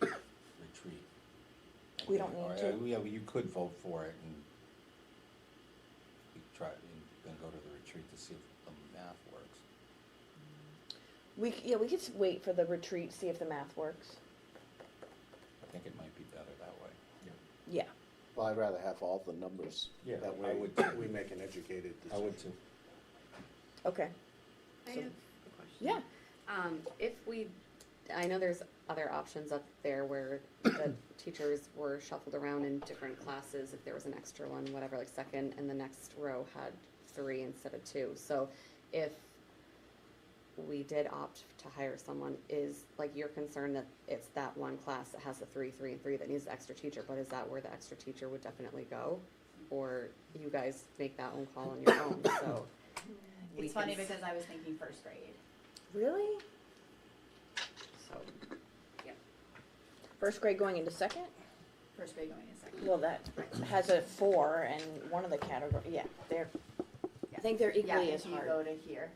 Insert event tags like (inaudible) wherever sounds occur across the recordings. (coughs) We don't need Or, uh, to. Yeah, well, you could vote for it and you try, and then go to the retreat to see if the math works. We, c- yeah, we could s- wait for the retreat, see if the math works. I think it might be better that way. Yeah. Well, I'd rather have all the numbers. Yeah, That I way, would- we make an educated I decision. would too. Okay. I So- have a question. Yeah. Um, if we, I know there's other options up there where the teachers were shuffled around in different classes, if there was an extra one, whatever, like second, and the next row had three instead of two. So if we did opt to hire someone, is, like, your concern that it's that one class that has the three, three, and three that needs the extra teacher, but is that where the extra teacher would definitely go? Or you guys make that own call on your own, so. we It's funny can s- because I was thinking first grade. Really? So, First grade going into second? First grade going to second. Well, that has a four and one of the category, yeah, they're, I think they're Yeah, equally as if you go hard. to here,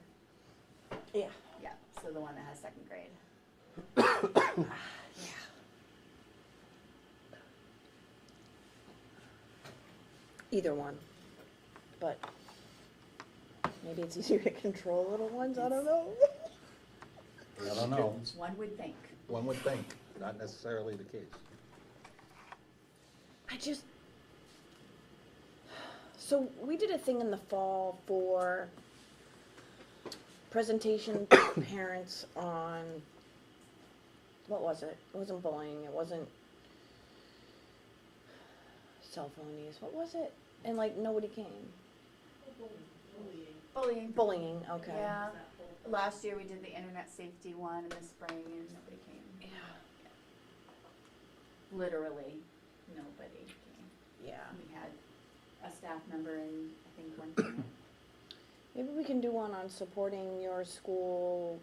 Yeah. yeah, so the one that has second grade. Either one. But maybe it's easier to control little ones, I don't know. (laughs) I don't know. One would think. One would think, not necessarily the case. I just. So we did a thing in the fall for presentation (coughs) to parents on, what was it? It wasn't bullying, it wasn't cell phone use, what was it? And like, nobody came. Bullying. Bullying, okay. Yeah. Last year we did the internet safety one in the spring and nobody came. Literally, nobody came. Yeah. We had a staff member and I think one (coughs) parent. Maybe we can do one on supporting your school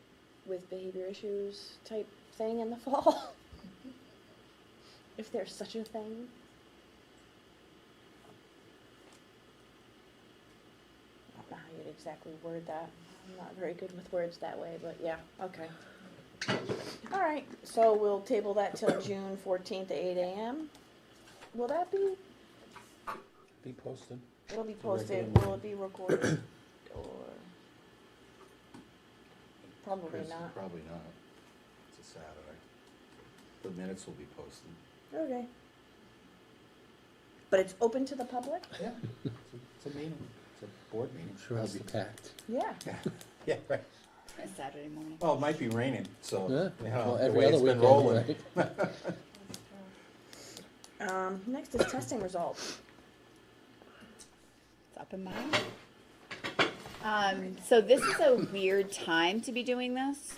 with behavior issues type thing in the (laughs) fall. if there's such a thing. I don't know how you'd exactly word that. I'm not very good with words that way, but yeah, okay. All right, so we'll table that till June 14th at 8 a.m. Will that be Be posted. It'll be Regular posted, meeting. will it be (clears throat) recorded, or? Probably Chris, not. Probably not. It's a Saturday. The minutes will be posted. Okay. But it's open to the public? Yeah. It's a- It's a meeting, it's a board meeting. Sure it'll That's be the- packed. Yeah. (laughs) Yeah, right. It's Saturday morning. Well, it might be raining, so, Yeah. you know, Well, the every way other it's been weekend, rolling. right? Um, next is testing results. It's up in mine. Um, so this is a weird time to be doing this.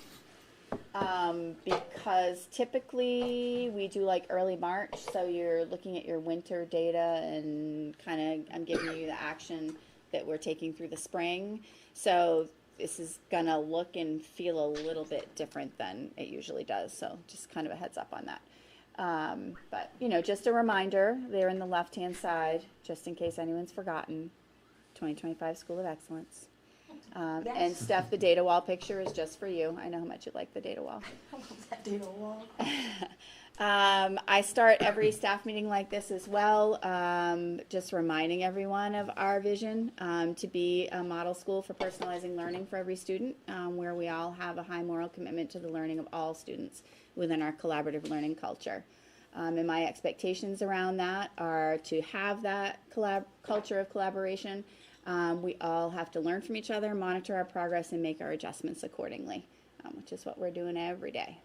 Um, because typically we do like early March, so you're looking at your winter data and kind of I'm giving you the action that we're taking through the spring. So this is gonna look and feel a little bit different than it usually does. So just kind of a heads up on that. Um, but you know, just a reminder, they're in the left-hand side, just in case anyone's forgotten. 2025 School of Excellence. Um, And Steph, the data wall picture is just for you. I know how much you like the data wall. Um, I start every staff meeting like this as well, um, just reminding everyone of our vision um, to be a model school for personalizing learning for every student, um, where we all have a high moral commitment to the learning of all students within our collaborative learning culture. Um, and my expectations around that are to have that collab- culture of collaboration. Um, we all have to learn from each other, monitor our progress, and make our adjustments accordingly, um, which is what we're doing every day.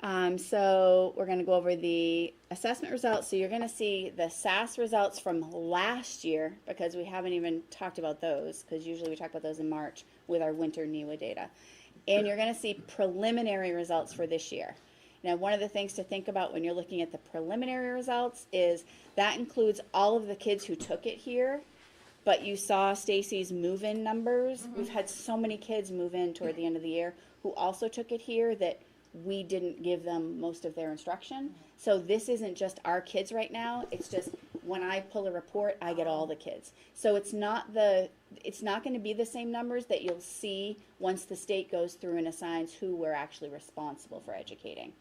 Um, so we're going to go over the assessment results. So you're going to see the SAS results from last year because we haven't even talked about those because usually we talk about those in March with our winter NEWA data. And you're going to see preliminary results for this year. Now, one of the things to think about when you're looking at the preliminary results is that includes all of the kids who took it here, but you saw Stacy's move-in numbers. We've had so many kids move in toward the end of the year who also took it here that we didn't give them most of their instruction. So this isn't just our kids right now. It's just when I pull a report, I get all the kids. So it's not the it's not going to be the same numbers that you'll see once the state goes through and assigns who we're actually responsible for educating.